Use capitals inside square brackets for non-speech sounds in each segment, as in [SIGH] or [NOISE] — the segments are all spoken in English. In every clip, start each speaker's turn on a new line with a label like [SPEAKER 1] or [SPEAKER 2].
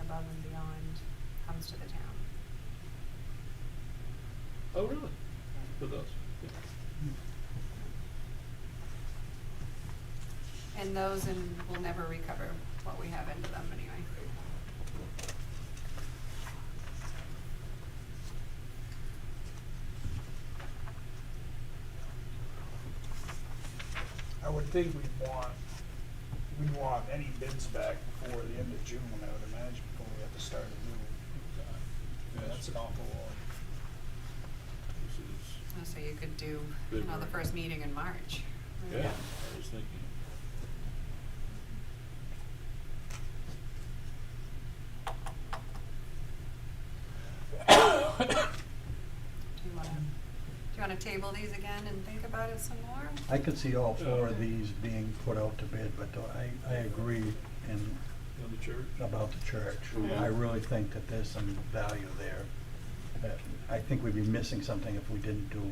[SPEAKER 1] above and beyond comes to the town.
[SPEAKER 2] Oh, really? For those? Yeah.
[SPEAKER 1] And those and we'll never recover what we have into them anyway.
[SPEAKER 3] I would think we'd want, we'd want any bids back before the end of June, I would imagine, before we have to start a new. uh,
[SPEAKER 2] Yes.
[SPEAKER 3] That's an awful lot.
[SPEAKER 2] This is,
[SPEAKER 1] And So you could do, you know, the
[SPEAKER 2] February.
[SPEAKER 1] first meeting in March. right?
[SPEAKER 2] yeah, I was thinking.
[SPEAKER 1] Do you wanna, do you wanna table these again and think about it some more?
[SPEAKER 4] I could see all four of
[SPEAKER 1] Yeah.
[SPEAKER 4] these being put out to bid, but I, I agree in,
[SPEAKER 2] On the church?
[SPEAKER 4] about the church.
[SPEAKER 2] Yeah.
[SPEAKER 4] I really think that there's some value there. that I think we'd be missing something if we didn't do,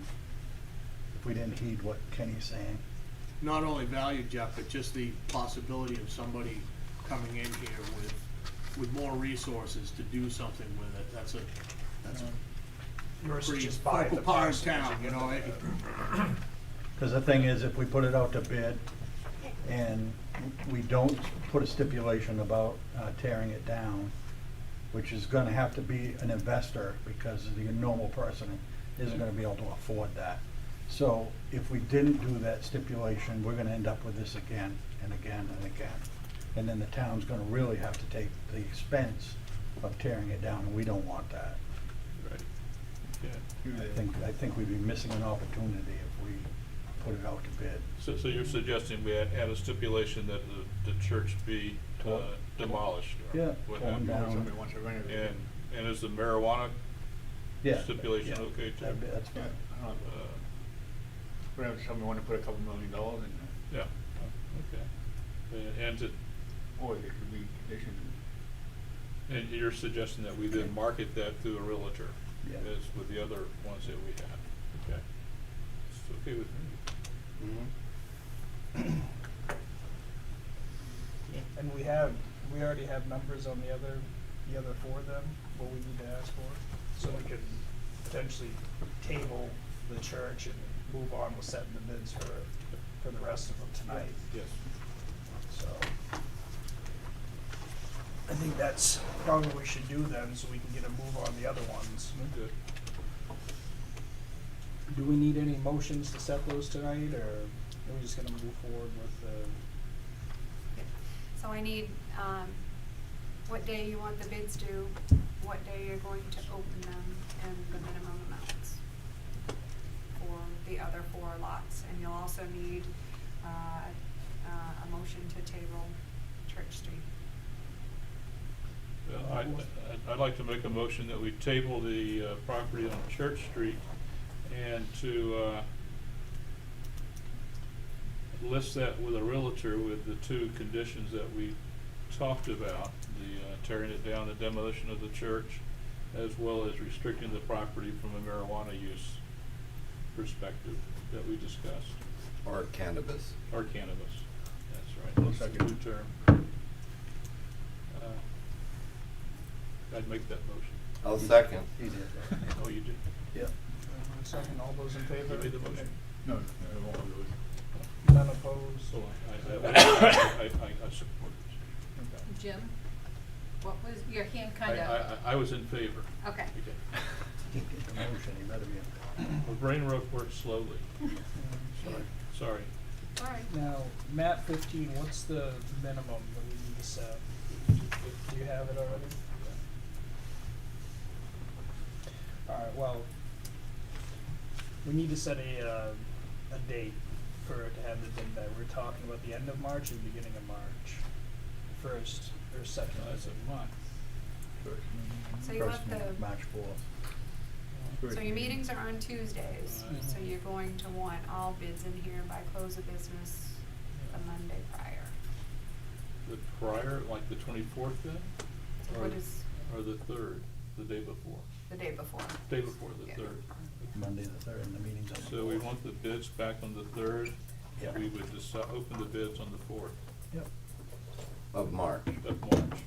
[SPEAKER 4] if we didn't heed what Kenny's saying.
[SPEAKER 5] not only value, Jeff, but just the possibility of somebody coming in here with, with more resources to do something with it, that's a, that's a
[SPEAKER 3] Um, Yours is
[SPEAKER 5] pretty
[SPEAKER 3] just buy
[SPEAKER 5] focal
[SPEAKER 3] the
[SPEAKER 5] part of
[SPEAKER 3] parcels and
[SPEAKER 5] town, you
[SPEAKER 3] get
[SPEAKER 5] know, eh?
[SPEAKER 3] the-
[SPEAKER 5] it-
[SPEAKER 4] Because the thing is, if we put it out to bid and we don't put a stipulation about uh, tearing it down, which is gonna have to be an investor because the normal person isn't gonna be able to afford that. So if we didn't do that stipulation, we're gonna end up with this again and again and again. And then the town's gonna really have to take the expense of tearing it down, and we don't want that.
[SPEAKER 2] Right. Yeah.
[SPEAKER 4] I think, I think we'd be missing an opportunity if we put it out to bid.
[SPEAKER 2] So, so you're suggesting we add add a stipulation that the, the church be uh,
[SPEAKER 4] Torn-
[SPEAKER 2] demolished? or
[SPEAKER 4] Yeah,
[SPEAKER 2] what
[SPEAKER 4] torn
[SPEAKER 2] have you.
[SPEAKER 4] down.
[SPEAKER 5] somebody wants to renovate it.
[SPEAKER 2] And, and is the marijuana
[SPEAKER 4] Yeah.
[SPEAKER 2] stipulation
[SPEAKER 4] Yeah.
[SPEAKER 2] okay too?
[SPEAKER 4] That'd be- That's
[SPEAKER 5] Yeah,
[SPEAKER 4] fine.
[SPEAKER 5] I don't
[SPEAKER 2] Uh,
[SPEAKER 5] know, whatever, somebody wanna put a couple million dollars in there,
[SPEAKER 2] Yeah, okay. And- And to,
[SPEAKER 5] or it could be conditioned.
[SPEAKER 2] and you're suggesting that we then market that through a realtor?
[SPEAKER 4] Yeah.
[SPEAKER 2] As with the other ones that we have, okay? It's okay with me.
[SPEAKER 3] And we have, we already have numbers on the other, the other four of them, what we need to ask for, so we can potentially table the church and move on with setting the bids for, for the rest of them tonight.
[SPEAKER 2] Yes.
[SPEAKER 3] So, I think that's probably what we should do then, so we can get a move on the other ones.
[SPEAKER 4] Mm-hmm.
[SPEAKER 2] Good.
[SPEAKER 3] Do we need any motions to set those tonight, or are we just gonna move forward with, uh,
[SPEAKER 1] So I need, um, what day you want the bids due, what day you're going to open them, and the minimum amounts for the other four lots. And you'll also need, uh, uh, a motion to table Church Street.
[SPEAKER 2] Well, I, I'd- I'd like to make a motion that we table the uh, property on Church Street and to uh, list that with a realtor with the two conditions that we talked about, the uh, tearing it down, the demolition of the church, as well as restricting the property from a marijuana use perspective that we discussed,
[SPEAKER 6] Or cannabis.
[SPEAKER 2] or cannabis. That's right, that's the new
[SPEAKER 5] Second.
[SPEAKER 2] term. Uh, I'd make that motion.
[SPEAKER 6] I'll second.
[SPEAKER 4] He did. that.
[SPEAKER 2] Oh, you did?
[SPEAKER 4] Yep.
[SPEAKER 3] everyone second, all those in favor?
[SPEAKER 2] You made the motion.
[SPEAKER 5] No, I won't do it.
[SPEAKER 3] None opposed?
[SPEAKER 2] So I, I, I, I, I- I support it.
[SPEAKER 7] Jim, what was, your hand
[SPEAKER 2] I,
[SPEAKER 7] kind
[SPEAKER 2] I,
[SPEAKER 7] of,
[SPEAKER 2] I was in favor.
[SPEAKER 7] okay.
[SPEAKER 4] He did the motion, he better be in there.
[SPEAKER 2] My brain work- works slowly.
[SPEAKER 7] [LAUGHS]
[SPEAKER 2] Sorry, sorry.
[SPEAKER 1] All right.
[SPEAKER 3] Now, map fifteen, what's the minimum that we need to set? Do you have it already? Alright, well, we need to set a, uh, a date for, it to have the bid back. We're talking about the end of March or beginning of March? First or second?
[SPEAKER 2] No, That's a month.
[SPEAKER 1] So you
[SPEAKER 4] First
[SPEAKER 1] want the,
[SPEAKER 4] meeting, March fourth.
[SPEAKER 1] So your meetings are on Tuesdays,
[SPEAKER 2] Right.
[SPEAKER 1] so you're going to want all bids in here by close of business the Monday prior.
[SPEAKER 2] The prior, like the twenty-fourth then?
[SPEAKER 1] So
[SPEAKER 2] Or-
[SPEAKER 1] What is
[SPEAKER 2] Or the third, the day before,
[SPEAKER 1] the day before?
[SPEAKER 2] day before the
[SPEAKER 1] Yeah.
[SPEAKER 2] third.
[SPEAKER 4] Monday the third, and the meeting's on the
[SPEAKER 2] So we
[SPEAKER 4] fourth.
[SPEAKER 2] want the bids back on the third.
[SPEAKER 4] Yeah.
[SPEAKER 2] We would just open the bids on the fourth
[SPEAKER 4] Yep.
[SPEAKER 6] Of March.
[SPEAKER 2] of March.